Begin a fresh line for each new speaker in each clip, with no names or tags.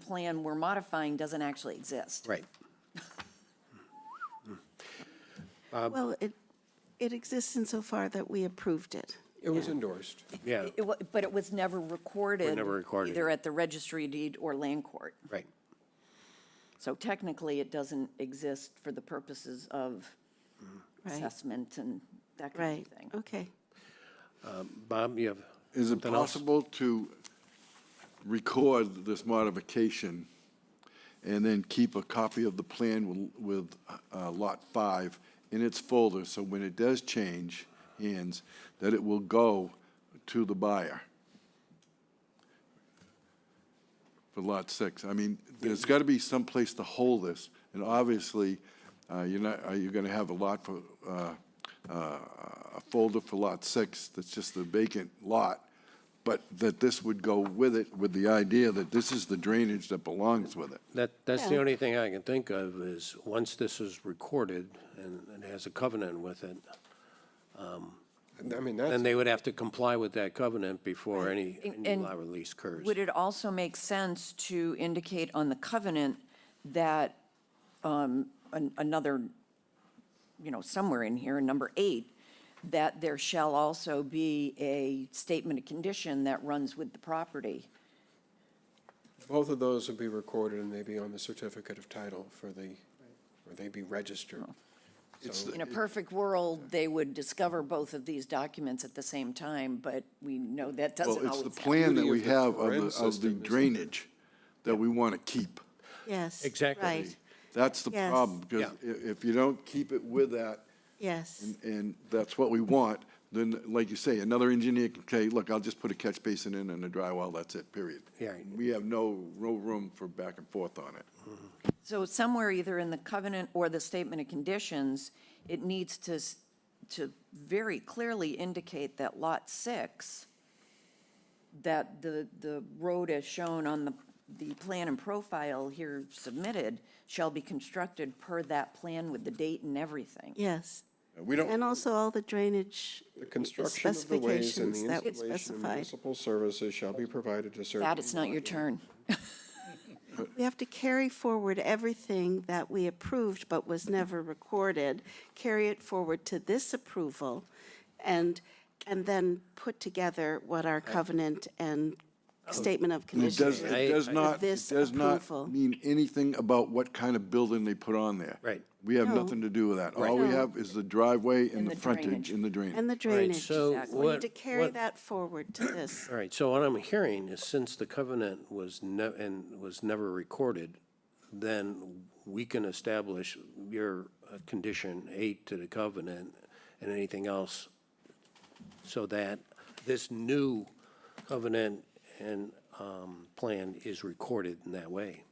plan we're modifying doesn't actually exist.
Right.
Well, it, it exists insofar that we approved it.
It was endorsed.
Yeah,
It wa- But it was never recorded.
never recorded.
Either at the registry deed or land court.
right.
So technically, it doesn't exist for the purposes of
Right,
assessment and that kind
right,
of thing.
okay.
Bob, you have?
Is it
something else?
possible to record this modification and then keep a copy of the plan with- with uh, Lot 5 in its folder, so when it does change hands, that it will go to the buyer? For Lot 6, I mean, there's got to be some place to hold this, and obviously, uh, you're not, are you going to have a lot for, uh, uh, a folder for Lot 6 that's just a vacant lot, but that this would go with it, with the idea that this is the drainage that belongs with it.
That, that's the only thing I can think of is, once this is recorded and it has a covenant with it, um,
I mean,
then
that's,
they would have to comply with that covenant before any,
And-
any
and
lot release occurs.
Would it also make sense to indicate on the covenant that um, an- another, you know, somewhere in here, number eight, that there shall also be a statement of condition that runs with the property?
both of those would be recorded and they'd be on the certificate of title for the, or they'd be registered. So
In a perfect world, they would discover both of these documents at the same time, but we know that doesn't
Well,
always
it's
happen.
the plan that
beauty
we
of the
have of
Corinne
the, of the
system, isn't it?
drainage that we want to keep.
Yes.
Exactly.
Right,
That's the
Yes.
problem, because i- if you don't keep it with that,
yes,
and- and that's what we want, then, like you say, another engineer can say, look, I'll just put a catch basin in and a dry well, that's it, period.
Yeah.
We have no, no room for back and forth on it.
So somewhere either in the covenant or the statement of conditions, it needs to, s- to very clearly indicate that lot six, that the, the road as shown on the, the plan and profile here submitted shall be constructed per that plan with the date and everything.
yes.
Uh, We don't.
And also all the drainage
The construction of the ways and
specifications
the
that we
installation of
specified.
municipal services shall be provided to certain.
That, it's not your turn.
We have to carry forward everything that we approved but was never recorded, carry it forward to this approval, and, and then put together what our covenant and statement of
It does,
conditions. is.
I-
it does
I-
not, it
This
does not
approval.
mean anything about what kind of building they put on there.
Right.
We have
No.
nothing to do with that. All we
No.
have is the driveway
And
and the
the drainage.
frontage and the
And
drain.
the
Right,
drainage.
so
Exactly.
We need
what,
to carry
what-
that forward to this.
all right, so what I'm hearing is since the covenant was ne, and was never recorded, then we can establish your uh, condition eight to the covenant and anything else so that this new covenant and, um, plan is recorded in that way.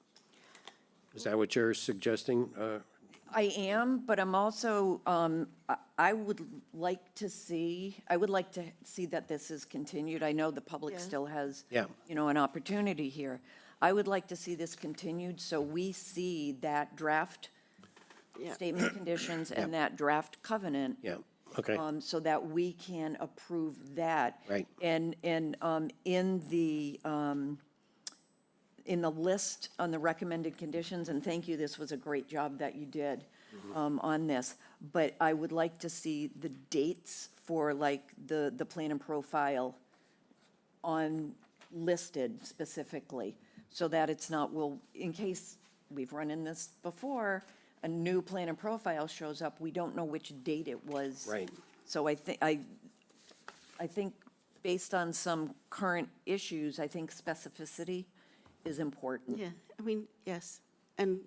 Is that what you're suggesting, uh,
I am, but I'm also, um, I- I would like to see, I would like to see that this is continued. I know the public
Yeah.
still has,
Yeah.
you know, an opportunity here. I would like to see this continued so we see that draft
Yeah.
statement of conditions and that draft covenant.
Yeah, okay.
um, So that we can approve that.
Right.
And, and um, in the, um, in the list on the recommended conditions, and thank you, this was a great job that you did
Mm-hmm.
um, on this, but I would like to see the dates for like the, the plan and profile on, listed specifically, so that it's not, well, in case we've run in this before, a new plan and profile shows up, we don't know which date it was.
Right.
So I think, I, I think based on some current issues, I think specificity is important.
Yeah, I mean, yes. And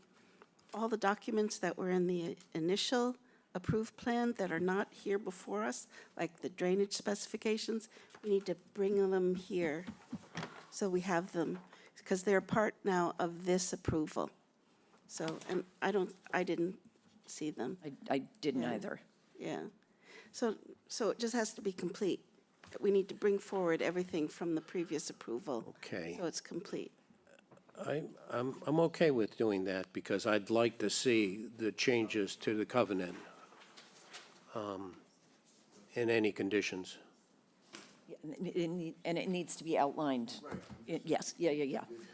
all the documents that were in the initial approved plan that are not here before us, like the drainage specifications, we need to bring them here so we have them, because they're part now of this approval. So, and I don't, I didn't see them,
I, I didn't either.
yeah. So, so it just has to be complete. We need to bring forward everything from the previous approval.
Okay.
So it's complete.
I, I'm, I'm okay with doing that because I'd like to see the changes to the covenant um, in any conditions.
Yeah, And it- it need- and it needs to be outlined. It- Yes, yeah, yeah, yeah.